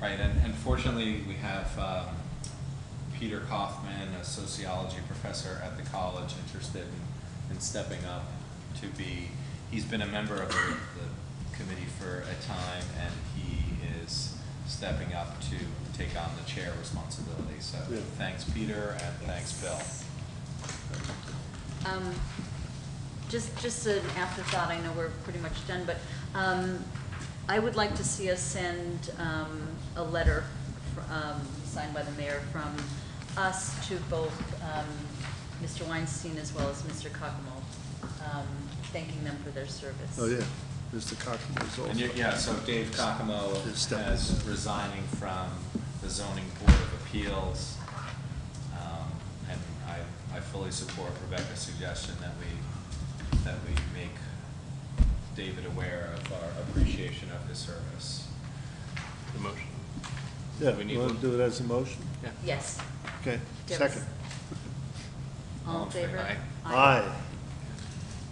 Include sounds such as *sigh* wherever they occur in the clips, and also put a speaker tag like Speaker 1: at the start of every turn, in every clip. Speaker 1: Right, and, and fortunately, we have um, Peter Kaufman, a sociology professor at the college, interested in, in stepping up to be, he's been a member of the, the committee for a time, and he is stepping up to take on the chair responsibility, so
Speaker 2: Yeah.
Speaker 1: thanks, Peter, and thanks, Bill.
Speaker 3: Um, Just, just an afterthought, I know we're pretty much done, but um, I would like to see us send um, a letter fr- um, signed by the mayor from us to both um, Mr. Weinstein as well as Mr. Cockamo, um, thanking them for their service.
Speaker 2: Oh, yeah, Mr. Cockmo is also.
Speaker 1: And you yeah, so Dave Cockamo
Speaker 2: Is stepping
Speaker 1: is
Speaker 2: up.
Speaker 1: resigning from the zoning board of appeals. Um, And I, I fully support Rebecca's suggestion that we, that we make David aware of our appreciation of his service.
Speaker 4: The motion.
Speaker 2: Yeah,
Speaker 4: We need
Speaker 2: you want
Speaker 4: one.
Speaker 2: to do it as a motion?
Speaker 4: Yeah.
Speaker 3: Yes.
Speaker 2: Okay,
Speaker 3: Yes.
Speaker 2: second.
Speaker 3: *laughs* All in favor?
Speaker 4: Aye.
Speaker 2: Aye.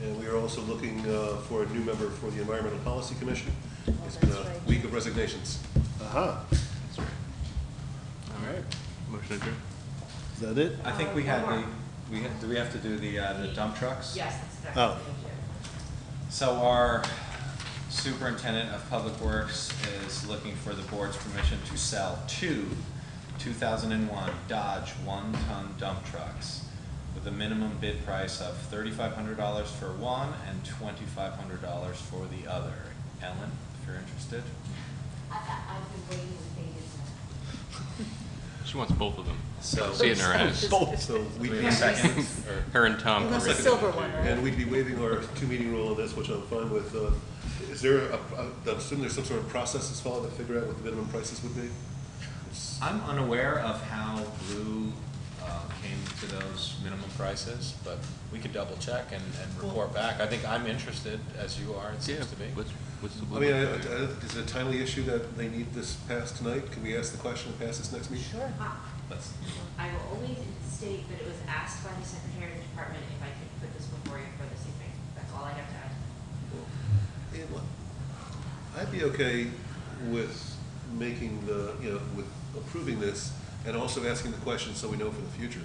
Speaker 5: And we are also looking uh, for a new member for the Environmental Policy Commission.
Speaker 3: Oh,
Speaker 5: It's been
Speaker 3: that's
Speaker 5: a
Speaker 3: right.
Speaker 5: week of resignations.
Speaker 2: Aha,
Speaker 4: That's right. All right. Motion adjourned.
Speaker 2: is that it?
Speaker 1: I think we had the, we, had- do we have to do the, uh, the dump trucks?
Speaker 6: Yes, that's
Speaker 2: Oh.
Speaker 6: correct. Thank you.
Speaker 1: So our superintendent of public works is looking for the board's permission to sell two 2001 Dodge one-ton dump trucks with a minimum bid price of $3,500 for one and $2,500 for the other. Ellen, if you're interested.
Speaker 6: I, I, I've been waiting with bated breath.
Speaker 4: She wants both of them.
Speaker 1: So,
Speaker 4: See it in her eyes.
Speaker 5: So we'd
Speaker 1: Wait
Speaker 5: be
Speaker 1: a second.
Speaker 4: Her and Tom.
Speaker 3: It was
Speaker 4: are
Speaker 3: a
Speaker 4: really-
Speaker 3: silver one, right?
Speaker 5: And we'd be waiving our two-meeting rule on this, which I'm fine with. Uh, Is there, a- a- I'm assuming there's some sort of process that's followed to figure out what the minimum prices would be? It's-
Speaker 1: I'm unaware of how Blue uh, came to those minimum prices, but we could double check and, and report back. I think I'm interested, as you are, it
Speaker 4: Yeah,
Speaker 1: seems to be.
Speaker 4: what's, what's the?
Speaker 5: I mean, I- I- is it a timely issue that they need this passed tonight? Can we ask the question and pass this next meeting?
Speaker 3: Sure.
Speaker 6: Uh,
Speaker 1: Let's-
Speaker 6: I will only state that it was asked by the Secretary of the Department if I could put this before you for this evening. That's all I have to add.
Speaker 5: And what- I'd be okay with making the, you know, with approving this and also asking the question so we know for the future.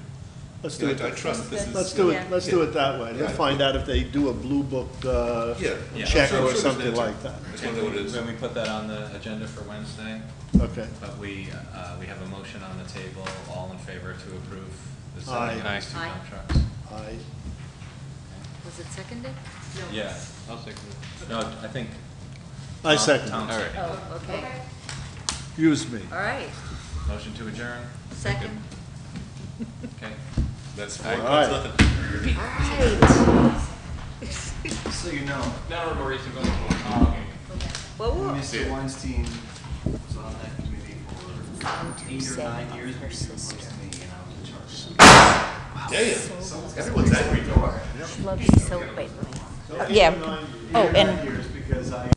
Speaker 2: Let's do
Speaker 5: You
Speaker 2: it.
Speaker 5: know, I I trust this is.
Speaker 2: Let's do
Speaker 3: Yeah.
Speaker 2: it, let's do it that way. Let's
Speaker 5: Yeah.
Speaker 2: find out if they do a blue book uh,
Speaker 5: Yeah.
Speaker 1: Yeah.
Speaker 2: check
Speaker 5: Sure,
Speaker 2: or
Speaker 5: it's
Speaker 2: something
Speaker 5: natural.
Speaker 2: like that.
Speaker 5: That's
Speaker 1: Can
Speaker 5: what it
Speaker 1: we,
Speaker 5: is.
Speaker 1: can we put that on the agenda for Wednesday?
Speaker 2: Okay.
Speaker 1: But we, uh, we have a motion on the table, all in favor to approve the
Speaker 2: Aye.
Speaker 1: selling of these two
Speaker 3: Aye.
Speaker 1: dump trucks?
Speaker 2: Aye.
Speaker 3: Was it seconded?
Speaker 6: No.
Speaker 1: Yeah,
Speaker 4: I'll second
Speaker 1: no, I think.
Speaker 2: I
Speaker 1: Tom-
Speaker 2: second.
Speaker 1: Tom
Speaker 4: it. All right.
Speaker 3: Oh, okay.
Speaker 6: Okay.
Speaker 2: Excuse me.
Speaker 3: All right.
Speaker 1: Motion to adjourn,
Speaker 3: Second.
Speaker 1: okay.
Speaker 5: That's four,
Speaker 2: All
Speaker 5: that's
Speaker 2: right.
Speaker 5: nothing.
Speaker 3: All right.
Speaker 7: So you know,
Speaker 4: Now we're more reasonable.
Speaker 3: Well, we'll-
Speaker 7: Mr. Weinstein was on that committee for eight or nine years before he was me, and I was in charge.
Speaker 5: Damn, everyone's angry.
Speaker 8: Yeah. Oh, and
Speaker 7: Years because I